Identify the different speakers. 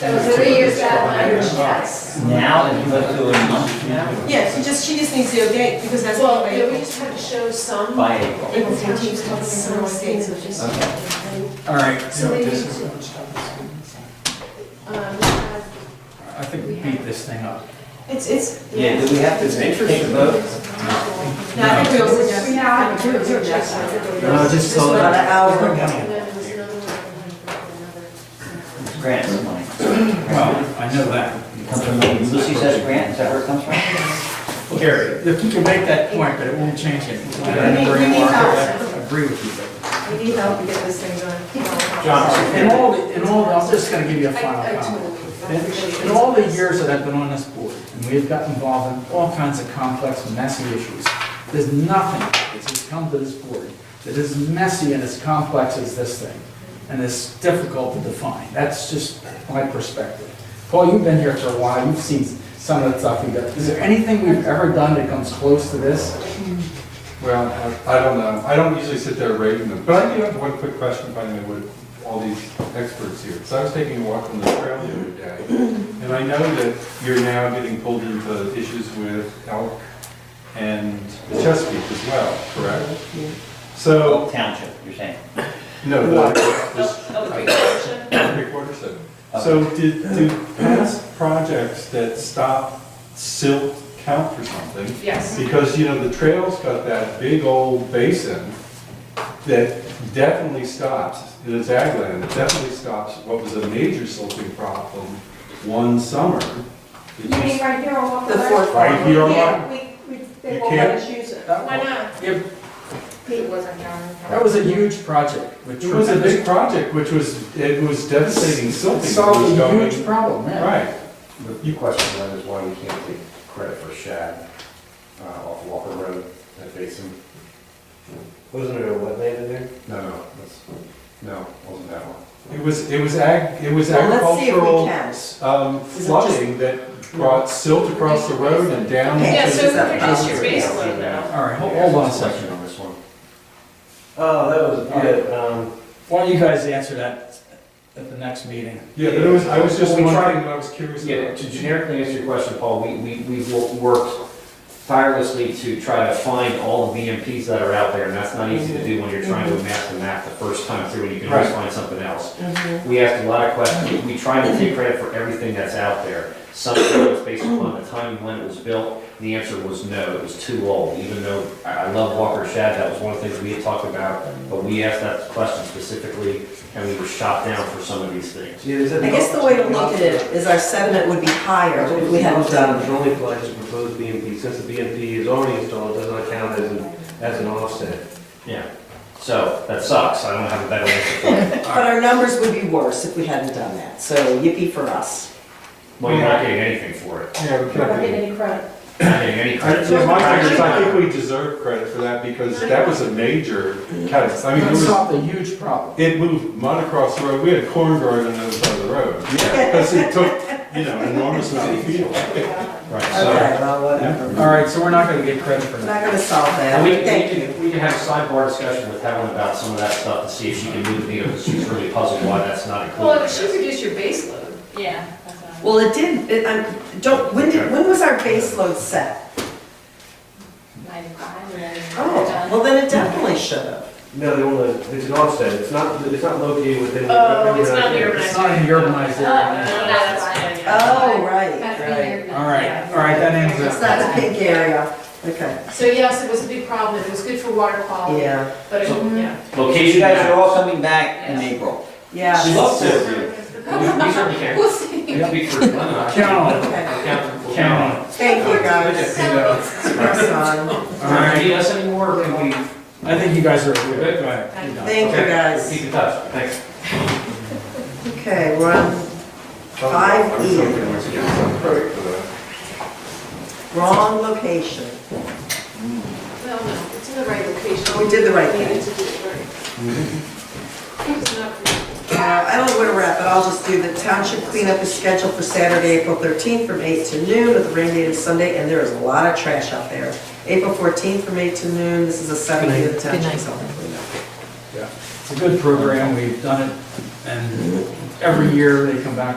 Speaker 1: So three years deadline, yes.
Speaker 2: Now, if you look to a month now,
Speaker 3: Yes, she just, she just needs the date because that's
Speaker 1: Well,
Speaker 3: what
Speaker 1: yeah, we
Speaker 3: we.
Speaker 1: just have to show some.
Speaker 2: by April.
Speaker 1: April 14th, come some states of just-
Speaker 4: All right, you
Speaker 1: So
Speaker 4: know,
Speaker 1: we need
Speaker 4: this is-
Speaker 1: to, um, have-
Speaker 4: I think we beat this thing up.
Speaker 3: It's, it's,
Speaker 2: Yeah, do we have to take a vote?
Speaker 3: no, I think we also just.
Speaker 5: We have to do it, do it, yes.
Speaker 2: No, just so
Speaker 5: About an hour ago.
Speaker 1: and then there was another one, another-
Speaker 2: Grant some money.
Speaker 4: Well, I know that.
Speaker 2: It comes from, Lucy says grant, is that where it comes from?
Speaker 4: Gary, if you can make that point, but it won't change it. I don't
Speaker 3: We need- we need
Speaker 4: I agree with you. but-
Speaker 3: We need help to get this thing done.
Speaker 4: In all, the- in all, I'm just gonna give you a
Speaker 1: I, I
Speaker 4: final comment.
Speaker 1: totally.
Speaker 4: In in all the years that I've been on this board, and we've got involved in all kinds of complex, messy issues, there's nothing that has come to this board that is messy and as complex as this thing, and as difficult to define. That's just my perspective. Paul, you've been here for a while, you've seen some of the stuff we've done. Is there anything we've ever done that comes close to this?
Speaker 6: Well, I I don't know, I don't usually sit there rating them, but I do have one quick question finally with all these experts here. So I was taking a walk on the trail the other day, and I know that you're now getting pulled into issues with elk and the Chesapeake as well, correct? So,
Speaker 2: Oak Township, you're saying?
Speaker 6: no, the, this,
Speaker 3: Yes.
Speaker 6: three quarters of it. So did, do past projects that stop silt count for something? Because, you know, the trail's got that big old basin that definitely stops, it is ag land, it definitely stops what was a major silting problem one summer. It
Speaker 5: You mean
Speaker 6: just-
Speaker 5: right here on Walker
Speaker 3: The
Speaker 5: Road?
Speaker 3: fourth
Speaker 6: Right here on
Speaker 5: Yeah, we, we, they
Speaker 6: You
Speaker 5: won't let
Speaker 6: can't-
Speaker 5: us use it.
Speaker 1: Why not?
Speaker 4: Yeah,
Speaker 1: Pete wasn't on.
Speaker 4: That was a huge project. with
Speaker 6: It was a
Speaker 4: tremendous-
Speaker 6: big project, which was, it was devastating silting. that was
Speaker 4: Solved a huge
Speaker 6: going-
Speaker 4: problem, yeah.
Speaker 6: Right,
Speaker 7: The the question then is why we can't take credit for shad uh, off Walker Road, that basin?
Speaker 8: Wasn't there a wetland in there?
Speaker 7: No, no, that's, no, wasn't that one.
Speaker 6: it was, it was ag, it was
Speaker 5: Well, let's see if we
Speaker 6: agricultural
Speaker 5: can.
Speaker 6: um,
Speaker 5: Is it
Speaker 6: flooding that brought silt across the road and down.
Speaker 5: Okay.
Speaker 3: Yeah,
Speaker 6: into
Speaker 3: so we could just use base
Speaker 7: Yeah.
Speaker 3: load now.
Speaker 4: All right, hold- hold on a second.
Speaker 7: Question on this one.
Speaker 8: Oh, that was, yeah, um,
Speaker 4: Why don't you guys answer that at the next meeting?
Speaker 6: Yeah, but it was, I was just
Speaker 7: Well, we tried-
Speaker 6: wondering, I was curious
Speaker 7: Yeah,
Speaker 6: about.
Speaker 7: to generically answer your question, Paul, we, we, we've wo- worked tirelessly to try to find all of the EMPs that are out there, and that's not easy to do when you're trying to map the map the first time through, and you can always
Speaker 6: Right.
Speaker 7: find something else. We asked a lot of questions, we try to take credit for everything that's out there. Some of it was based upon the timing when it was built, and the answer was no, it was too old, even though I, I love Walker Shad, that was one of the things we had talked about, but we asked that question specifically, and we were shot down for some of these things.
Speaker 8: yeah, there's a.
Speaker 5: I guess the way to look at it is our sediment would be higher
Speaker 8: That's what
Speaker 5: if
Speaker 8: we
Speaker 5: we
Speaker 8: had
Speaker 5: hadn't done
Speaker 8: down, it's only applied to proposed BMP, since the BMP is already installed, it doesn't count as an, as an offset.
Speaker 7: Yeah, so that sucks, I don't have a better answer for you.
Speaker 5: But our numbers would be worse if we hadn't done that, so yippee for us.
Speaker 7: Well, you're not getting anything for it.
Speaker 6: Yeah,
Speaker 1: We're
Speaker 6: we
Speaker 1: not
Speaker 6: can't.
Speaker 1: getting any credit.
Speaker 7: You're not getting any
Speaker 6: I,
Speaker 7: credit.
Speaker 6: in my opinion, I think we deserve credit for that because that was a major catastrophe. I mean, it
Speaker 4: That
Speaker 6: was,
Speaker 4: solved a huge problem.
Speaker 6: it moved mud across the road. We had a corn garden on the other side of the road. Because it took, you know, an enormous amount of fuel.
Speaker 7: Right, so,
Speaker 5: Okay, well, whatever.
Speaker 4: All right, so we're not gonna get credit for
Speaker 5: We're
Speaker 4: that.
Speaker 5: not gonna solve
Speaker 7: and
Speaker 5: that,
Speaker 7: we, we
Speaker 5: thank you.
Speaker 7: can, we can have a sidebar discussion with Helen about some of that stuff to see if she can move the needle, because she's really puzzled why that's not
Speaker 1: Well, it should
Speaker 7: included.
Speaker 1: reduce your base load.
Speaker 9: Yeah, that's what I'm.
Speaker 5: Well, it did, it, I'm, don't, when did, when was our base load set?
Speaker 9: Ninety-five, and then.
Speaker 5: Oh, well, then it definitely should have.
Speaker 8: No, they want to, it's an offset, it's not, it's not located within. the-
Speaker 1: Oh, it's
Speaker 8: Yeah.
Speaker 1: not near.
Speaker 4: It's not in the urbanized area.
Speaker 5: Oh, right, right.
Speaker 9: All
Speaker 4: All right, all right, that ends
Speaker 5: It's
Speaker 4: it.
Speaker 5: not a big area, okay,
Speaker 1: So yes, it was a big problem, it was good for water quality,
Speaker 5: Oh. yeah,
Speaker 1: but it,
Speaker 7: So-
Speaker 1: yeah.
Speaker 2: You
Speaker 7: Location
Speaker 2: guys are
Speaker 7: matters.
Speaker 2: all coming back in April.
Speaker 7: She
Speaker 5: yeah.
Speaker 7: loves it. We we certainly can.
Speaker 1: We'll see.
Speaker 7: We speak for Glenn.
Speaker 4: Count on it,
Speaker 5: Okay,
Speaker 7: Count.
Speaker 4: count
Speaker 5: thank you, guys.
Speaker 4: uh,
Speaker 5: Press
Speaker 4: on
Speaker 5: on.
Speaker 4: it. All
Speaker 7: All right,
Speaker 4: right,
Speaker 7: need us anymore, or can we?
Speaker 4: I think you guys are good.
Speaker 7: Good.
Speaker 4: Go ahead. You're done.
Speaker 5: Thank you,
Speaker 7: Okay,
Speaker 5: guys.
Speaker 7: Keep in touch, thanks.
Speaker 5: Okay, we're on five E,
Speaker 6: Let's get some credit for that.
Speaker 5: wrong location.
Speaker 1: Well, no, it's in the right location.
Speaker 5: We did the right
Speaker 1: We
Speaker 5: thing.
Speaker 1: needed to do it right.
Speaker 4: Mm-hmm.
Speaker 1: It's not for-
Speaker 5: Uh, I don't know where to wrap it, I'll just do the township cleanup is scheduled for Saturday, April 13th from 8 to noon with a rain date of Sunday, and there is a lot of trash out there. April 14th from 8 to noon, this is a Saturday of the township cleanup.
Speaker 4: It's a good program, we've done it, and every year they come back with